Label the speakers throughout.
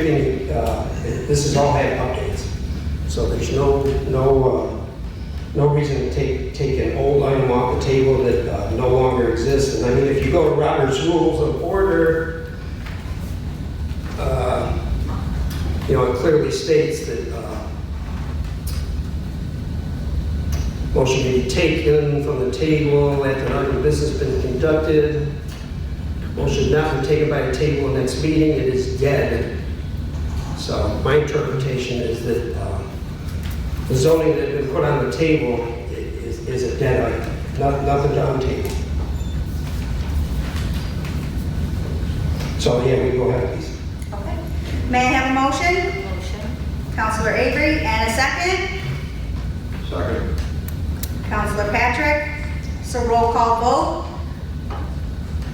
Speaker 1: uh, this is all their updates. So there's no, no, uh, no reason to take, take an old item off the table that uh, no longer exists. And I mean, if you go to Robert's Rules of Order, uh, you know, it clearly states that uh, motion be taken from the table after an item of business been conducted. Motion not be taken by the table next meeting, it is dead. So my interpretation is that um, the zoning that has been put on the table i- is is a dead item, not- nothing on the table. So, yeah, we go ahead, please.
Speaker 2: Okay. May I have a motion?
Speaker 3: Motion.
Speaker 2: Counselor Avery, and a second?
Speaker 1: Second.
Speaker 2: Counselor Patrick? So roll call vote.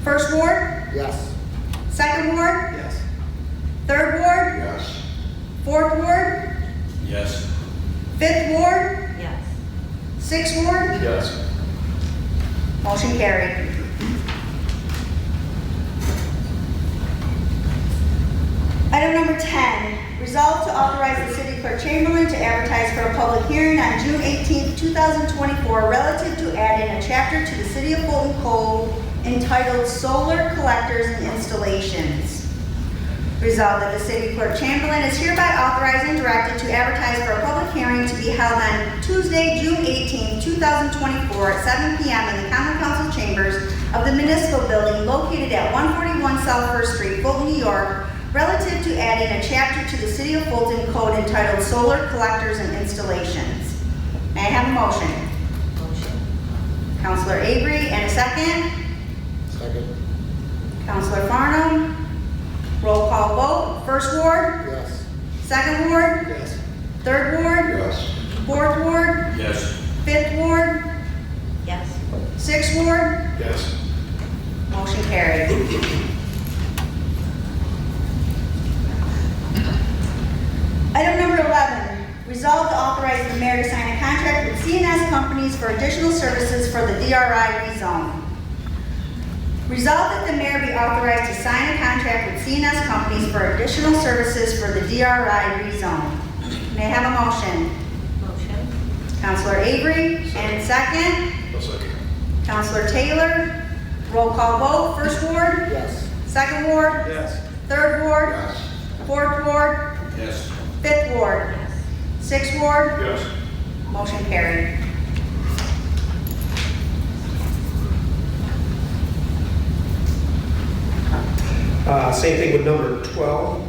Speaker 2: First ward?
Speaker 4: Yes.
Speaker 2: Second ward?
Speaker 4: Yes.
Speaker 2: Third ward?
Speaker 4: Yes.
Speaker 2: Fourth ward?
Speaker 5: Yes.
Speaker 2: Fifth ward?
Speaker 3: Yes.
Speaker 2: Sixth ward?
Speaker 5: Yes.
Speaker 2: Motion carried. Item number 10, resolve to authorize the city clerk Chamberlain to advertise for a public hearing on June 18, 2024, relative to adding a chapter to the City of Fulton Code entitled Solar Collectors and Installations. Resolved that the city clerk Chamberlain is hereby authorized and directed to advertise for a public hearing to be held on Tuesday, June 18, 2024, at 7 p.m. in the Common Council Chambers of the Municipal Building located at 141 South First Street, Fulton, New York, relative to adding a chapter to the City of Fulton Code entitled Solar Collectors and Installations. May I have a motion?
Speaker 3: Motion.
Speaker 2: Counselor Avery, and a second?
Speaker 4: Second.
Speaker 2: Counselor Farnum? Roll call vote. First ward?
Speaker 4: Yes.
Speaker 2: Second ward?
Speaker 4: Yes.
Speaker 2: Third ward,
Speaker 4: Yes.
Speaker 2: fourth ward,
Speaker 5: Yes.
Speaker 2: fifth ward,
Speaker 3: Yes.
Speaker 2: sixth ward,
Speaker 5: Yes.
Speaker 2: motion carried. Item number 11, resolve to authorize the mayor to sign a contract with CNS companies for additional services for the DRI rezone. Resolve that the mayor be authorized to sign a contract with CNS companies for additional services for the DRI rezone. May I have a motion?
Speaker 3: Motion.
Speaker 2: Counselor Avery, and second,
Speaker 5: I'll second.
Speaker 2: Counselor Taylor. Roll call vote, first ward,
Speaker 4: Yes.
Speaker 2: second ward,
Speaker 5: Yes.
Speaker 2: third ward,
Speaker 4: Yes.
Speaker 2: fourth ward,
Speaker 5: Yes.
Speaker 2: fifth ward,
Speaker 3: Yes.
Speaker 2: sixth ward,
Speaker 5: Yes.
Speaker 2: motion carried.
Speaker 1: Uh, Same thing with number 12.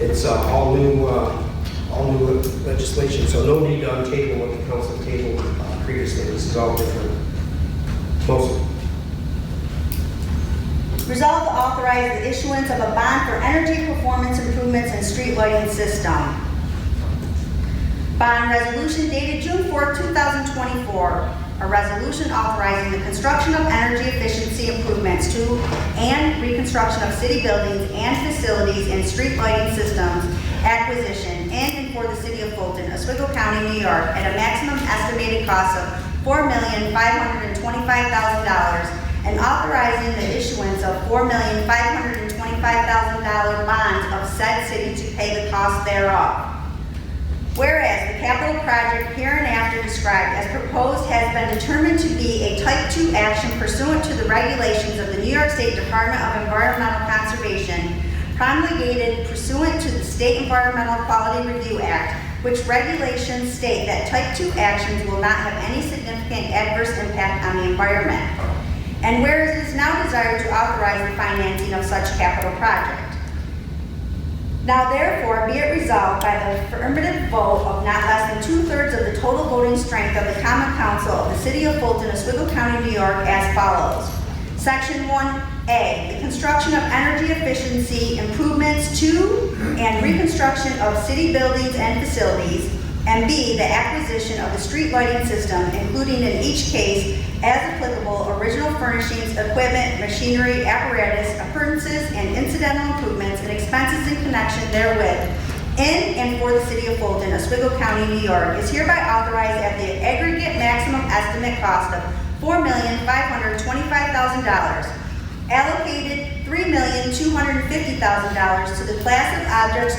Speaker 1: It's uh, all new, uh, all new legislation, so no need on table what the council tabled uh, previously. This is all different. Most,
Speaker 2: Resolve to authorize the issuance of a bond for energy performance improvements in street lighting system. Bond resolution dated June 4, 2024, a resolution authorizing the construction of energy efficiency improvements to and reconstruction of city buildings and facilities and street lighting systems acquisition in and for the city of Fulton, Oswego County, New York, at a maximum estimated cost of $4,525,000 and authorizing the issuance of $4,525,000 bonds of said city to pay the cost thereof. Whereas the capital project hereinafter described as proposed has been determined to be a type 2 action pursuant to the regulations of the New York State Department of Environmental Conservation promulgated pursuant to the State Environmental Quality Review Act, which regulations state that type 2 actions will not have any significant adverse impact on the environment. And whereas it is now desired to authorize the financing of such capital project. Now therefore be it resolved by the affirmative vote of not less than two-thirds of the total voting strength of the common council of the city of Fulton, Oswego County, New York, as follows. Section 1A, the construction of energy efficiency improvements to and reconstruction of city buildings and facilities, and B, the acquisition of the street lighting system, including in each case, as applicable, original furnishings, equipment, machinery, apparatus, appurtenances, and incidental improvements and expenses in connection therewith in and for the city of Fulton, Oswego County, New York, is hereby authorized at the aggregate maximum estimate cost of $4,525,000, allocated $3,250,000 to the class of objects